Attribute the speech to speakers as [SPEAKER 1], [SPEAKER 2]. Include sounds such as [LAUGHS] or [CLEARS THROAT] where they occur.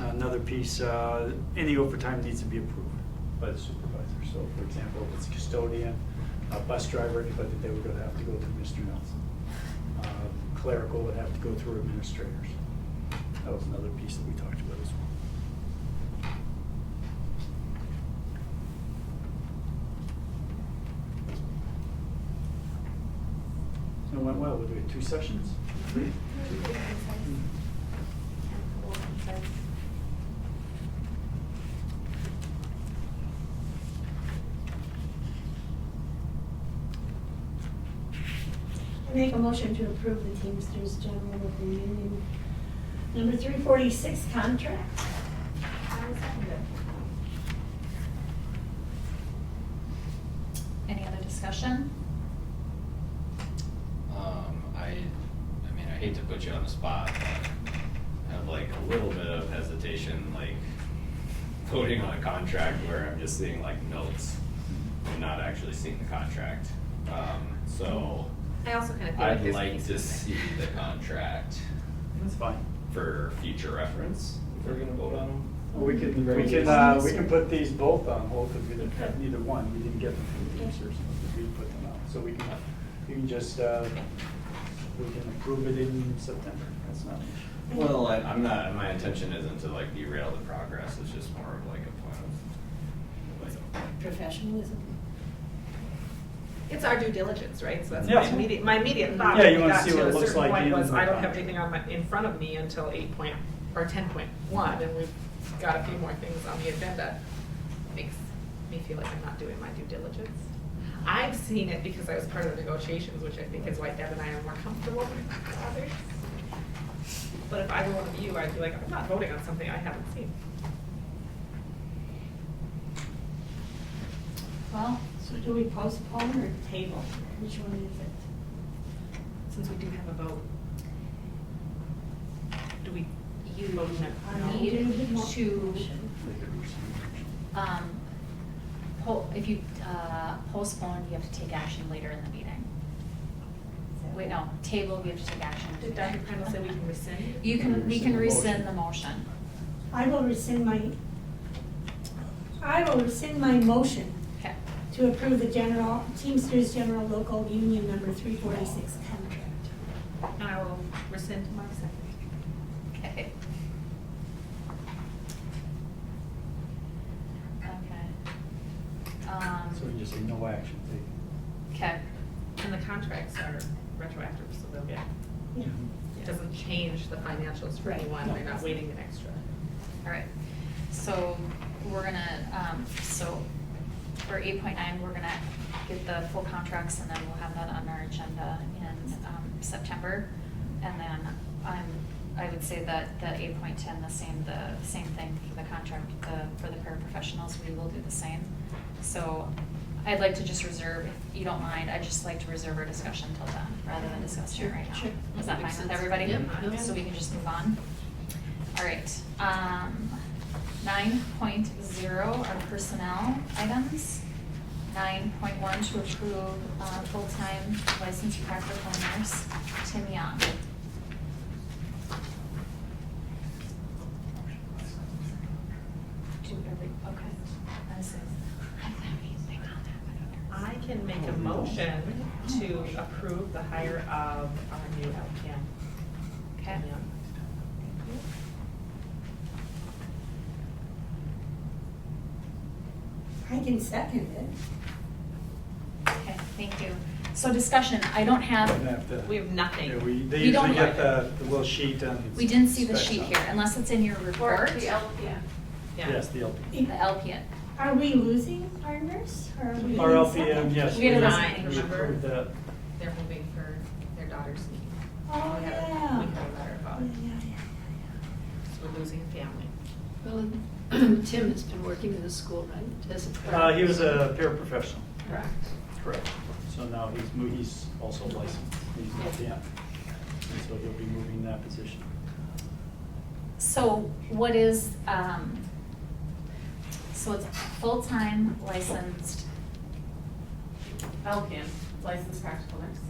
[SPEAKER 1] another piece, uh, any overtime needs to be approved.
[SPEAKER 2] by the supervisor. So for example, if it's a custodian, a bus driver, anybody, they would go- have to go through Mr. Nelson. Uh, Clerical would have to go through administrators. That was another piece that we talked about as well. It went well, we did two sessions.
[SPEAKER 3] I Make a motion to approve the Teamsters General of the Union, number three forty-six contract.
[SPEAKER 4] Any other discussion?
[SPEAKER 5] Um, I, I mean, I hate to put you on the spot, but I have like a little bit of hesitation, like voting on a contract where I'm just seeing like notes and not actually seeing the contract. Um, so
[SPEAKER 6] I also kind of feel like
[SPEAKER 5] I'd
[SPEAKER 6] there's. a
[SPEAKER 5] like
[SPEAKER 6] piece
[SPEAKER 5] to
[SPEAKER 6] of it.
[SPEAKER 5] see the contract
[SPEAKER 2] That's fine.
[SPEAKER 5] for future reference, if we're gonna vote on them.
[SPEAKER 2] Well, We can, we can, uh, we can put these both on hold, because we didn't have neither one, we didn't get them from the teachers, we put them out, so we can, you can just, uh, we can approve it in September, that's not.
[SPEAKER 5] Well, I, I'm not, my intention isn't to like derail the progress, it's just more of like a point of, like,
[SPEAKER 3] Professionalism.
[SPEAKER 6] It's our due diligence, right? So that's
[SPEAKER 2] Yeah.
[SPEAKER 6] my immediate, my immediate thought.
[SPEAKER 2] Yeah,
[SPEAKER 6] when
[SPEAKER 2] you
[SPEAKER 6] we
[SPEAKER 2] wanna
[SPEAKER 6] got
[SPEAKER 2] see what
[SPEAKER 6] a
[SPEAKER 2] it looks
[SPEAKER 6] certain
[SPEAKER 2] like
[SPEAKER 6] point
[SPEAKER 2] in
[SPEAKER 6] Was
[SPEAKER 2] the
[SPEAKER 6] I don't have
[SPEAKER 2] contract.
[SPEAKER 6] anything on my, in front of me until eight point, or ten point one, and we've got a few more things on the agenda. Makes me feel like I'm not doing my due diligence. I've seen it because I was part of the negotiations, which I think is why Deb and I are more comfortable with [LAUGHS] others. But if I were one of you, I'd be like, I'm not voting on something I haven't seen.
[SPEAKER 4] Well,
[SPEAKER 3] So do we postpone or table? Which one is it?
[SPEAKER 6] Since we do have a vote, do we?
[SPEAKER 4] you
[SPEAKER 6] vote no?
[SPEAKER 3] I
[SPEAKER 4] need
[SPEAKER 3] don't
[SPEAKER 4] to,
[SPEAKER 2] we can rescind.
[SPEAKER 4] um, po- if you uh, postpone, you have to take action later in the meeting. Wait, no, table, we have to take action.
[SPEAKER 6] Did Dr. Prindle say we can rescind?
[SPEAKER 4] You can, we can
[SPEAKER 2] Rescind
[SPEAKER 4] rescind
[SPEAKER 2] the
[SPEAKER 4] the motion.
[SPEAKER 3] I will rescind my, I will rescind my motion
[SPEAKER 4] Okay,
[SPEAKER 3] to approve the general, Teamsters General Local Union number three forty-six contract.
[SPEAKER 6] And I will rescind my second.
[SPEAKER 4] okay. Okay. Um,
[SPEAKER 2] So we just say no action taken.
[SPEAKER 4] Okay,
[SPEAKER 6] And the contracts are retroactive, so they'll,
[SPEAKER 2] Yeah.
[SPEAKER 3] Yeah.
[SPEAKER 6] it doesn't change the financials for
[SPEAKER 4] Right.
[SPEAKER 6] anyone, they're not waiting an extra.
[SPEAKER 4] all right. So we're gonna, um, so for eight point nine, we're gonna get the full contracts and then we'll have that on our agenda in, um, September. And then, um, I would say that the eight point ten, the same, the same thing for the contract, the, for the paraprofessionals, we will do the same. So I'd like to just reserve, if you don't mind, I'd just like to reserve our discussion till then, rather than discuss it right now.
[SPEAKER 3] Sure, sure.
[SPEAKER 4] Is that
[SPEAKER 6] Makes
[SPEAKER 4] fine with
[SPEAKER 6] sense.
[SPEAKER 4] everybody?
[SPEAKER 6] Yeah.
[SPEAKER 4] So we can just move on. All right, um, nine point zero are personnel items. Nine point one to approve, uh, full-time licensed practical nurse, Tim Young. Do every, okay. I was like, I thought we think on that, but I
[SPEAKER 6] I can make a motion to approve the hire of our new LPN.
[SPEAKER 4] don't. Okay,
[SPEAKER 3] I can second it.
[SPEAKER 4] okay, thank you. So discussion, I don't
[SPEAKER 2] We're gonna
[SPEAKER 4] have,
[SPEAKER 2] have to-
[SPEAKER 6] We have
[SPEAKER 2] Yeah,
[SPEAKER 6] nothing.
[SPEAKER 2] we, they
[SPEAKER 4] We don't
[SPEAKER 2] usually get the,
[SPEAKER 4] have-
[SPEAKER 2] the little sheet and.
[SPEAKER 4] we didn't see the
[SPEAKER 2] specs
[SPEAKER 4] sheet
[SPEAKER 2] on it.
[SPEAKER 4] here, unless it's in your report.
[SPEAKER 6] LPN. Yeah.
[SPEAKER 2] Yes, the LPN.
[SPEAKER 4] The LPN.
[SPEAKER 3] Are we losing our nurse or are we?
[SPEAKER 2] Our
[SPEAKER 3] losing
[SPEAKER 2] LPN,
[SPEAKER 3] someone?
[SPEAKER 2] yes.
[SPEAKER 4] We had a
[SPEAKER 2] we-
[SPEAKER 4] resign,
[SPEAKER 2] We
[SPEAKER 6] remember?
[SPEAKER 2] approved that.
[SPEAKER 6] They're moving for their daughter's need.
[SPEAKER 3] Oh,
[SPEAKER 6] We had a-
[SPEAKER 3] yeah.
[SPEAKER 6] We had a letter about
[SPEAKER 3] Yeah,
[SPEAKER 6] it,
[SPEAKER 3] yeah, yeah.
[SPEAKER 6] so we're losing a family.
[SPEAKER 7] Well, [CLEARS THROAT] Tim has been working in the school, right, as a.
[SPEAKER 2] Uh, he was a paraprofessional.
[SPEAKER 6] Correct.
[SPEAKER 2] Correct. So now he's, mo- he's also licensed, he's an LPN, and so he'll be moving that position.
[SPEAKER 4] So what is, um, so it's full-time licensed
[SPEAKER 6] LPN, licensed practical nurse.